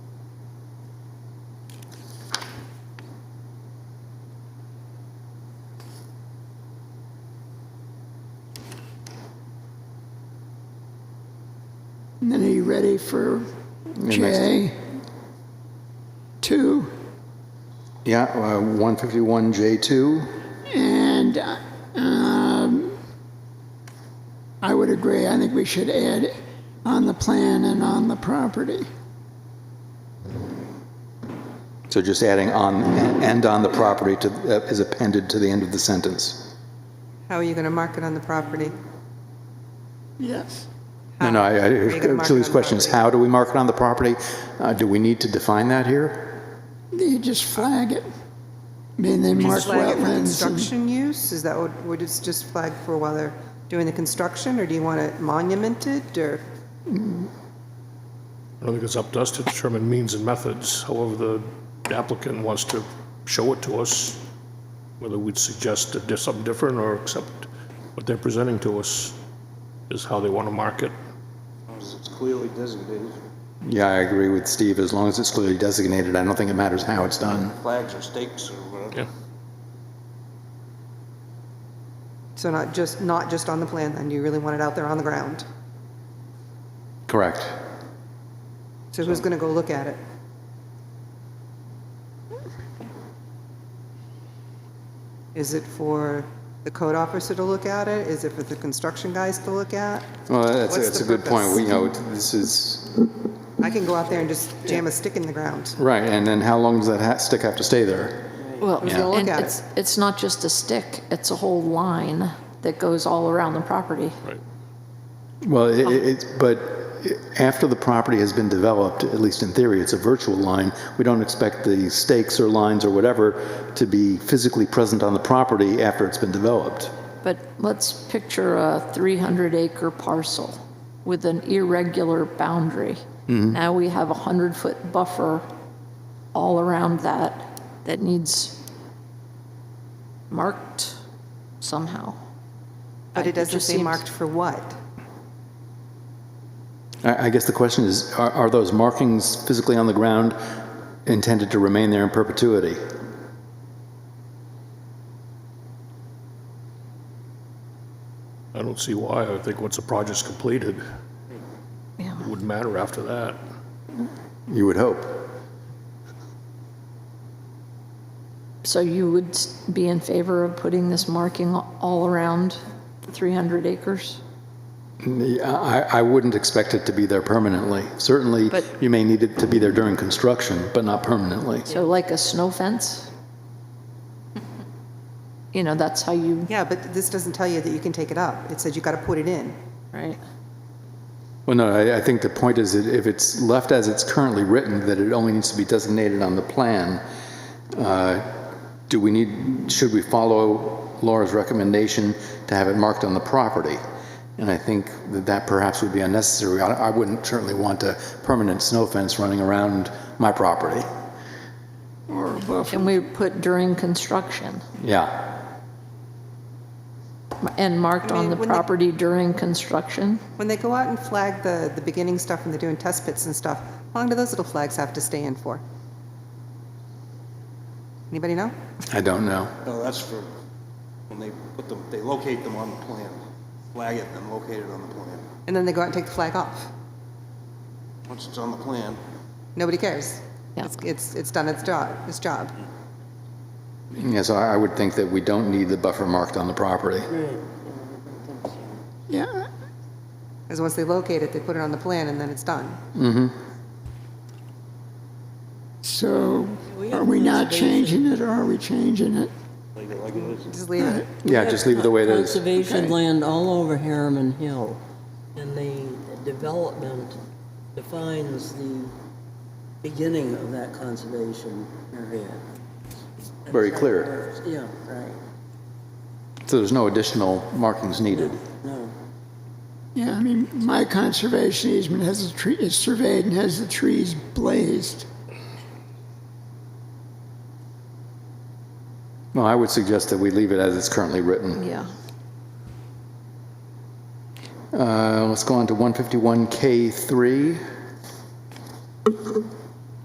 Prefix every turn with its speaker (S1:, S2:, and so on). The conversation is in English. S1: And then are you ready for J? Two,
S2: Yeah, uh, 151J2.
S1: and um, I would agree, I think we should add on the plan and on the property.
S2: So just adding on, and on the property to, uh, is appended to the end of the sentence.
S3: How are you going to mark it on the property?
S1: Yes.
S2: No, no, I,
S3: you gonna
S2: I-
S3: mark it
S2: Julie's
S3: on
S2: question is,
S3: property?
S2: how do we mark it on the property? Uh, Do we need to define that here?
S1: You just flag it. I mean, they mark
S3: Just flag it for
S1: wetlands. and-
S3: construction use? Is that what, would it just flag for while they're doing the construction, or do you want it monumented, or?
S4: I don't think it's up to us to determine means and methods. However, the applicant wants to show it to us, whether we'd suggest to do something different or accept what they're presenting to us is how they want to mark it.
S5: It's clearly designated,
S2: Yeah, I agree with Steve, as long as it's clearly designated, I don't think it matters how it's done.
S5: flags or stakes or whatever.
S4: Yeah.
S3: So not just, not just on the plan, then, you really want it out there on the ground?
S2: Correct.
S3: So who's going to go look at it? Is it for the code officer to look at it? Is it for the construction guys to look at?
S2: Well, that's,
S3: What's
S2: that's a
S3: the
S2: good point,
S3: purpose?
S2: we, you know, this is,
S3: I can go out there and just jam a stick in the ground.
S2: right, and then how long does that ha- stick have to stay there?
S6: Well,
S3: Who's gonna look
S6: and
S3: at it?
S6: it's, it's not just a stick, it's a whole line that goes all around the property.
S4: Right.
S2: Well, it, it- it's, but after the property has been developed, at least in theory, it's a virtual line. We don't expect the stakes or lines or whatever to be physically present on the property after it's been developed.
S6: But let's picture a 300 acre parcel with an irregular boundary.
S3: Mm-hmm.
S6: Now we have a 100 foot buffer all around that that needs marked somehow.
S3: But it doesn't
S6: just
S3: say
S6: seems-
S3: marked for what?
S2: I, I guess the question is, are, are those markings physically on the ground intended to remain there in perpetuity?
S4: I don't see why. I think once the project's completed,
S6: Yeah.
S4: it wouldn't matter after that.
S2: You would hope.
S6: So you would s- be in favor of putting this marking all around 300 acres?
S2: I, I wouldn't expect it to be there permanently. Certainly,
S6: But-
S2: you may need it to be there during construction, but not permanently.
S6: So like a snow fence? You know, that's how you,
S3: Yeah, but this doesn't tell you that you can take it up. It says you got to put it in.
S6: right?
S2: Well, no, I, I think the point is that if it's left as it's currently written, that it only needs to be designated on the plan. uh, Do we need, should we follow Laura's recommendation to have it marked on the property? And I think that that perhaps would be unnecessary. I, I wouldn't certainly want a permanent snow fence running around my property.
S1: Or a buffer.
S6: Can we put during construction
S2: Yeah,
S6: and marked
S3: I
S6: on
S3: mean,
S6: the
S3: when they-
S6: property during construction?
S3: When they go out and flag the, the beginning stuff and they're doing test pits and stuff, how long do those little flags have to stay in for? Anybody know?
S2: I don't know.
S5: No, that's for, when they put them, they locate them on the plan, flag it and locate it on the plan.
S3: And then they go out and take the flag off.
S5: Once it's on the plan,
S3: Nobody cares.
S6: Yeah.
S3: It's, it's, it's done its job, its job.
S2: Yeah, so I I would think that we don't need the buffer marked on the property.
S1: Yeah,
S3: Because once they locate it, they put it on the plan and then it's done.
S1: so are we not changing it or are we changing it?
S3: Just leave it.
S2: Yeah, just leave it the way it is.
S7: Conservation land all over Harriman Hill, and the development defines the beginning of that conservation area.
S2: Very clear.
S7: Yeah, right,
S2: So there's no additional markings needed.
S7: no.
S1: Yeah, I mean, my conservation easement has the tree, is surveyed and has the trees blazed.
S2: Well, I would suggest that we leave it as it's currently written.
S6: Yeah.
S2: Uh, Let's go on to 151K3.